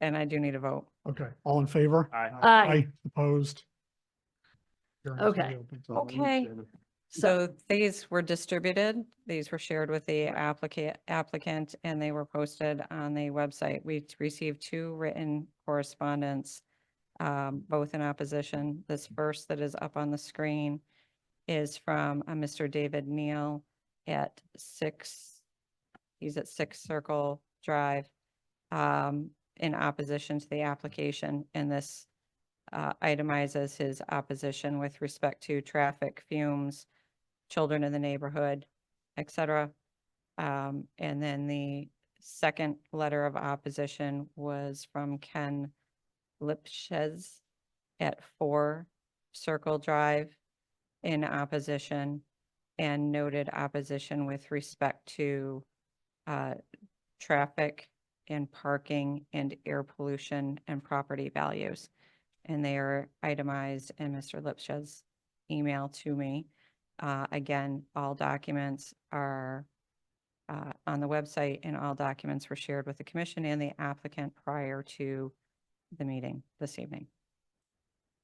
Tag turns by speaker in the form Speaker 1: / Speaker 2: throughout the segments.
Speaker 1: and I do need a vote.
Speaker 2: Okay, all in favor?
Speaker 3: Aye.
Speaker 2: Uh,
Speaker 4: Aye.
Speaker 2: Opposed? Hearing is
Speaker 4: Okay.
Speaker 2: reopened.
Speaker 1: Okay. So these were distributed, these were shared with the applicant, applicant, and they were posted on the website. We received two written correspondence, um, both in opposition. This first that is up on the screen is from a Mr. David Neal at six, he's at Six Circle Drive, um, in opposition to the application, and this uh, itemizes his opposition with respect to traffic, fumes, children in the neighborhood, et cetera. Um, and then the second letter of opposition was from Ken Lipschitz at Four Circle Drive in opposition and noted opposition with respect to, uh, traffic and parking and air pollution and property values and they are itemized in Mr. Lipsch's email to me. Uh, again, all documents are uh, on the website and all documents were shared with the commission and the applicant prior to the meeting this evening.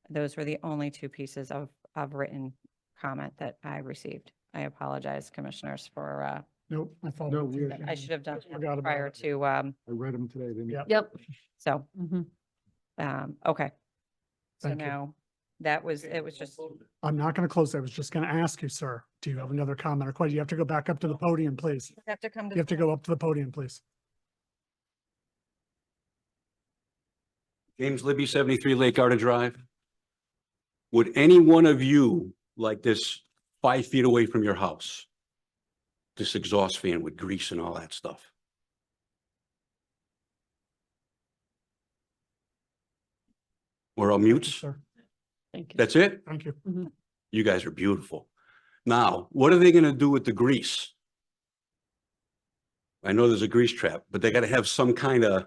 Speaker 1: Those were the only two pieces of, of written comment that I received. I apologize, commissioners, for, uh,
Speaker 2: Nope. I thought
Speaker 3: No,
Speaker 2: we did
Speaker 3: we-
Speaker 2: that.
Speaker 1: I should have done
Speaker 2: Mm-hmm. Just forgot about
Speaker 1: prior
Speaker 2: it.
Speaker 1: to, um,
Speaker 3: I read them today, didn't
Speaker 2: Yeah.
Speaker 3: I?
Speaker 4: Yep.
Speaker 1: so,
Speaker 4: Mhm.
Speaker 1: um, okay. So
Speaker 2: Mm-hmm. Thank you.
Speaker 1: now, that was, it was just.
Speaker 2: I'm not going to close. I was just going to ask you, sir, do you have another comment or question? You have to go back up to the podium, please.
Speaker 1: Have to come
Speaker 2: You have to go up to the podium, please.
Speaker 5: James Libby, seventy-three Lake Garden Drive. Would any one of you like this five feet away from your house? This exhaust fan with grease and all that stuff? We're all mutes?
Speaker 2: Sir,
Speaker 4: Thank you.
Speaker 5: That's it?
Speaker 2: thank you.
Speaker 5: You guys are beautiful. Now, what are they gonna do with the grease? I know there's a grease trap, but they gotta have some kind of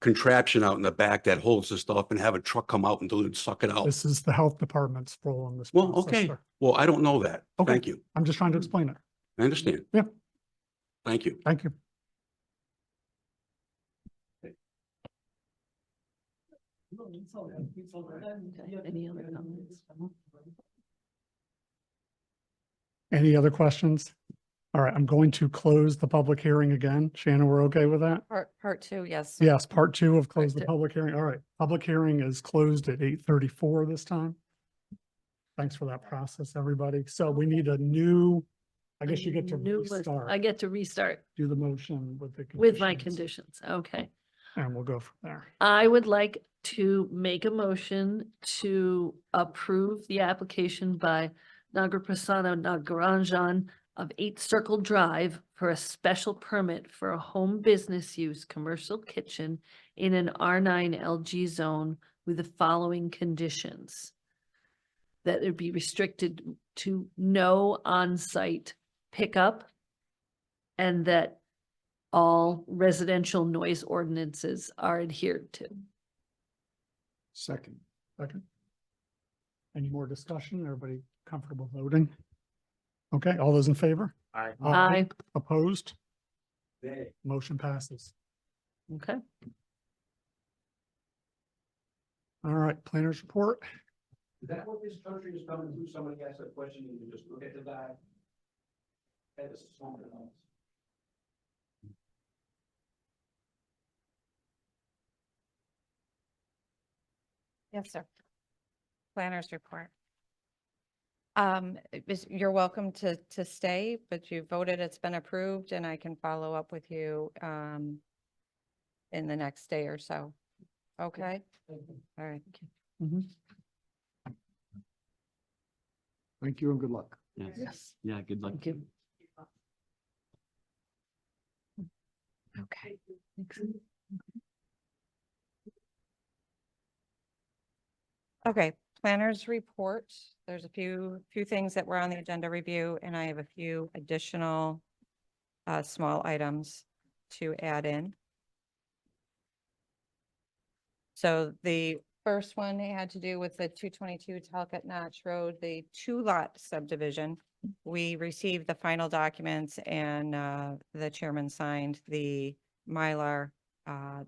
Speaker 5: contraption out in the back that holds the stuff and have a truck come out and dilute, suck it out.
Speaker 2: This is the health department's role in this.
Speaker 5: Well,
Speaker 2: process,
Speaker 5: okay.
Speaker 2: sir.
Speaker 5: Well, I don't know that.
Speaker 2: Okay.
Speaker 5: Thank you.
Speaker 2: I'm just trying to explain it.
Speaker 5: I understand.
Speaker 2: Yeah.
Speaker 5: Thank you.
Speaker 2: Thank you.
Speaker 4: Okay, Any other comments?
Speaker 2: Any other questions? All right, I'm going to close the public hearing again. Shannon, we're okay with that?
Speaker 1: Part, part two, yes.
Speaker 2: Yes, part two of close the
Speaker 1: two.
Speaker 2: public hearing. All right, public hearing is closed at eight thirty-four this time. Thanks for that process, everybody. So we need a new, I guess you get to
Speaker 4: New list. I
Speaker 2: restart,
Speaker 4: get to restart
Speaker 2: do the motion with the.
Speaker 4: with my
Speaker 2: conditions,
Speaker 4: conditions. Okay.
Speaker 2: And we'll go from there.
Speaker 4: I would like to make a motion to approve the application by Nagarprasad Nagaranjan of Eight Circle Drive for a special permit for a home business use commercial kitchen in an R nine LG zone with the following conditions. That it be restricted to no on-site pickup and that all residential noise ordinances are adhered to.
Speaker 3: Second.
Speaker 2: Second. Any more discussion? Everybody comfortable voting? Okay, all those in favor?
Speaker 3: Aye.
Speaker 4: I,
Speaker 2: Opposed? Motion passes.
Speaker 4: okay,
Speaker 2: All right, planners report.
Speaker 5: Is that what this country is coming to? Somebody asked a question and you just look at the guy? That is something else.
Speaker 1: Yes, sir. Planners report. Um, it was- you're welcome to, to stay, but you voted, it's been approved, and I can follow up with you, um, in the next day or so. Okay? All right.
Speaker 3: Thank you and good luck.
Speaker 4: Yes.
Speaker 5: Yeah, good luck.
Speaker 4: thank you.
Speaker 1: Okay. Okay, planners report. There's a few, few things that were on the agenda review, and I have a few additional uh, small items to add in. So the first one had to do with the two twenty-two Talcott Notch Road, the two-lot subdivision. We received the final documents and uh, the chairman signed the Mylar uh,